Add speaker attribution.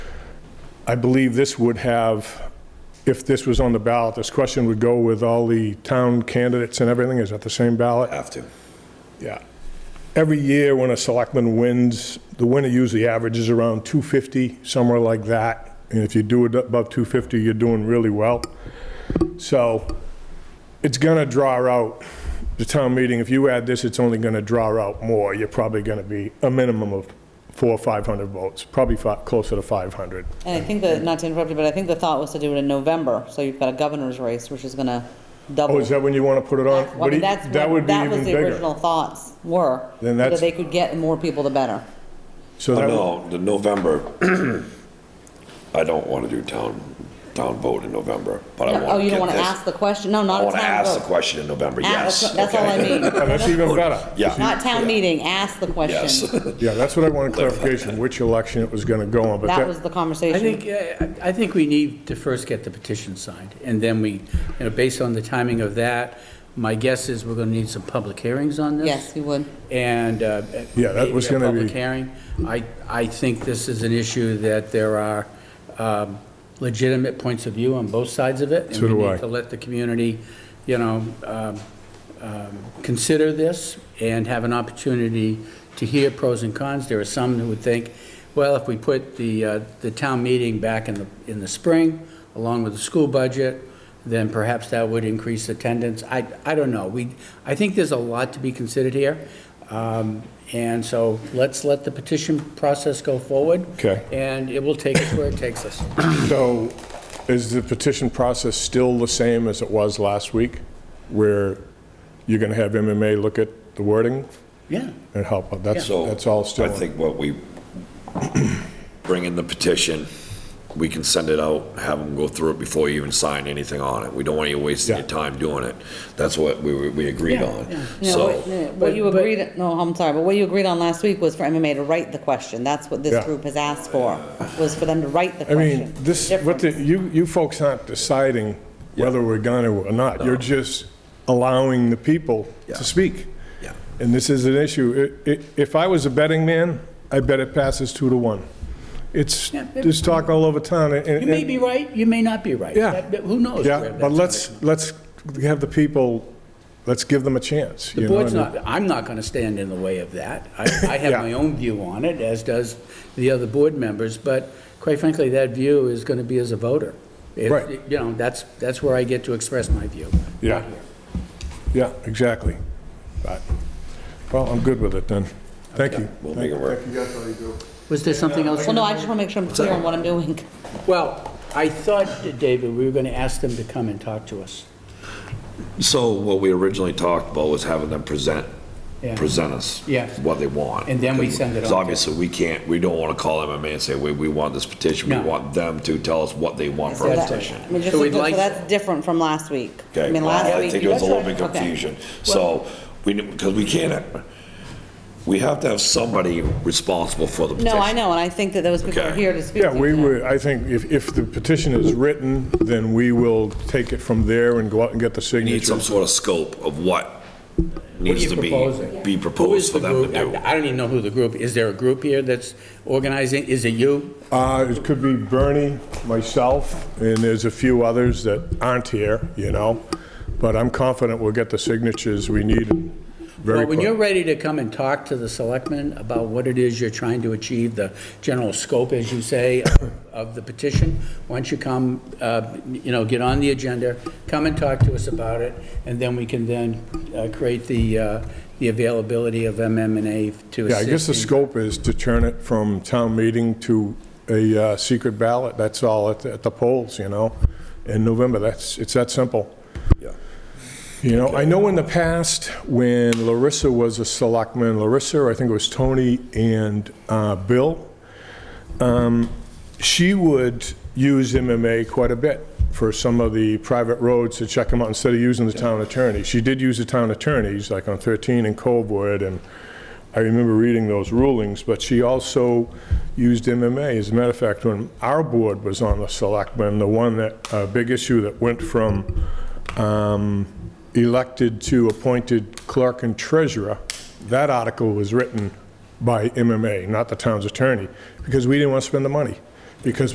Speaker 1: I believe this would have, if this was on the ballot, this question would go with all the town candidates and everything. Is that the same ballot?
Speaker 2: Have to.
Speaker 1: Yeah. Every year when a selectman wins, the winner usually averages around 250, somewhere like that. And if you do it above 250, you're doing really well. So it's going to draw out the town meeting. If you add this, it's only going to draw out more. You're probably going to be a minimum of four or 500 votes, probably fi- closer to 500.
Speaker 3: And I think that, not to interrupt you, but I think the thought was to do it in November, so you've got a governor's race, which is gonna double.
Speaker 1: Oh, is that when you want to put it on?
Speaker 3: Well, I
Speaker 1: What do
Speaker 3: mean,
Speaker 1: you-
Speaker 3: that's
Speaker 1: That
Speaker 3: what-
Speaker 1: would be
Speaker 3: that was
Speaker 1: even
Speaker 3: the
Speaker 1: bigger.
Speaker 3: Original thoughts were,
Speaker 1: Then
Speaker 3: that
Speaker 1: that's-
Speaker 3: they could get the more people, the better.
Speaker 1: So that would-
Speaker 2: No, the November, I don't want to do town, town vote in November, but I want to
Speaker 3: Oh, you don't wanna ask the question? No,
Speaker 2: I
Speaker 3: not a
Speaker 2: want
Speaker 3: town
Speaker 2: to ask the
Speaker 3: vote.
Speaker 2: question in November,
Speaker 3: Ah,
Speaker 2: yes.
Speaker 3: That's that's all I
Speaker 2: okay.
Speaker 1: oh,
Speaker 3: mean.
Speaker 1: that's even better.
Speaker 2: Yeah,
Speaker 3: Not town meeting, ask the
Speaker 2: yes.
Speaker 3: question.
Speaker 1: Yeah, that's what I wanted clarification, which election it was going to go on, but
Speaker 3: That was
Speaker 1: that,
Speaker 3: the
Speaker 4: I
Speaker 3: conversation.
Speaker 4: think, uh, I think we need to first get the petition signed, and then we, you know, based on the timing of that, my guess is we're gonna need some public hearings on this.
Speaker 3: Yes, you would.
Speaker 4: And. uh,
Speaker 1: Yeah, that was
Speaker 4: maybe a
Speaker 1: gonna
Speaker 4: Public
Speaker 1: be-
Speaker 4: hearing. I, I think this is an issue that there are um, legitimate points of view on both sides of it.
Speaker 1: So do
Speaker 4: And we
Speaker 1: I.
Speaker 4: need to let the community, you know, um, um, consider this and have an opportunity to hear pros and cons. There are some who would think, well, if we put the, uh, the town meeting back in the, in the spring, along with the school budget, then perhaps that would increase attendance. I, I don't know. We, I think there's a lot to be considered here. Um, And so let's let the petition process go forward.
Speaker 1: Okay.
Speaker 4: And it will take us where it takes us.
Speaker 1: so is the petition process still the same as it was last week? Where you're going to have MMA look at the wording
Speaker 4: Yeah.
Speaker 1: and help, out? that's,
Speaker 2: So
Speaker 1: that's all still.
Speaker 2: I think what we, bring in the petition, we can send it out, have them go through it before you even sign anything on it. We don't want you wasting your
Speaker 1: Yeah.
Speaker 2: time doing it. That's what we, we agreed
Speaker 4: Yeah,
Speaker 2: on.
Speaker 4: yeah.
Speaker 3: Yeah,
Speaker 2: So,
Speaker 3: what- yeah, What you
Speaker 4: But- but-
Speaker 3: agreed, no, I'm sorry, but what you agreed on last week was for MMA to write the question. That's what
Speaker 1: Yeah.
Speaker 3: this group has asked for, was for them to write the
Speaker 1: I
Speaker 3: question.
Speaker 1: mean, this, what the, you, you folks aren't deciding whether we're going to or not. You're just allowing the people
Speaker 2: Yeah.
Speaker 1: to speak.
Speaker 2: Yeah.
Speaker 1: And this is an issue. I- i- If I was a betting man, I bet it passes two to one. It's,
Speaker 4: Yeah.
Speaker 1: there's talk all over town. and-
Speaker 4: You may be right, you may not be right.
Speaker 1: Yeah.
Speaker 4: That- that- Who knows? where
Speaker 1: Yeah,
Speaker 4: that's
Speaker 1: but
Speaker 4: gonna
Speaker 1: let's,
Speaker 4: come.
Speaker 1: let's have the people, let's give them a chance.
Speaker 4: The
Speaker 1: you know,
Speaker 4: board's
Speaker 1: and-
Speaker 4: not, I'm not going to stand in the way of that. I, I have
Speaker 1: Yeah.
Speaker 4: my own view on it, as does the other board members, but quite frankly, that view is going to be as a voter. If-
Speaker 1: Right.
Speaker 4: You know, that's, that's where I get to express my view.
Speaker 1: Yeah. Yeah, exactly. But- Well, I'm good with it then. Thank you.
Speaker 2: we'll make it work.
Speaker 4: Was there something else?
Speaker 3: Well, no, I just want to make sure I'm clear on what I'm doing.
Speaker 4: Well, I thought, David, we were going to ask them to come and talk to us.
Speaker 2: So what we originally talked about was having them present,
Speaker 4: Yeah.
Speaker 2: present us.
Speaker 4: Yes.
Speaker 2: What they want.
Speaker 4: And then we send it on
Speaker 2: Because
Speaker 4: to-
Speaker 2: obviously, we can't, we don't want to call MMA and say, we, we want this petition. We
Speaker 4: No.
Speaker 2: want them to tell us what they want for
Speaker 3: So
Speaker 2: a
Speaker 3: that-
Speaker 2: petition.
Speaker 3: I mean, just
Speaker 4: So
Speaker 3: so
Speaker 4: we'd like-
Speaker 3: that's different from last week. I
Speaker 2: Okay,
Speaker 3: mean,
Speaker 2: well,
Speaker 3: last
Speaker 2: I
Speaker 3: week-
Speaker 2: think it was a little bit
Speaker 3: Okay.
Speaker 2: confusion. So, we, because we can't, we have to have somebody responsible for the petition.
Speaker 3: No, I know, and I think that those people are
Speaker 2: Okay.
Speaker 3: here to speak.
Speaker 1: Yeah,
Speaker 3: to
Speaker 1: we
Speaker 3: that.
Speaker 1: would, I think if, if the petition is written, then we will take it from there and go out and get the
Speaker 2: We Need some
Speaker 1: signatures.
Speaker 2: sort of scope of what
Speaker 4: What are
Speaker 2: needs
Speaker 4: you
Speaker 2: to be,
Speaker 4: proposing?
Speaker 2: be
Speaker 4: Who is
Speaker 2: proposed for
Speaker 4: the
Speaker 2: them
Speaker 4: group?
Speaker 2: to do.
Speaker 4: I I don't even know who the group, is there a group here that's organizing? Is it you?
Speaker 1: Uh, it could be Bernie, myself, and there's a few others that aren't here, you know? But I'm confident we'll get the signatures we need very
Speaker 4: Well, when
Speaker 1: quickly.
Speaker 4: you're ready to come and talk to the selectmen about what it is you're trying to achieve, the general scope, as you say, of the petition, why don't you come, uh, you know, get on the agenda, come and talk to us about it, and then we can then uh, create the, uh, the availability of MMNA to
Speaker 1: Yeah,
Speaker 4: assist.
Speaker 1: I guess the
Speaker 4: in-
Speaker 1: scope is to turn it from town meeting to a uh, secret ballot, that's all, at at the polls, you know, in November, that's, it's that simple. You know, I know in the past, when Larissa was a selectman, Larissa, I think it was Tony and uh, Bill, she would use MMA quite a bit for some of the private roads to check them out instead of using the town attorney. She did use the town attorneys, like on 13 and Colwood, and I remember reading those rulings, but she also used MMA. As a matter of fact, when our board was on the selectmen, the one that, uh, big issue that went from um, elected to appointed clerk and treasurer, that article was written by MMA, not the town's attorney, because we didn't want to spend the money, because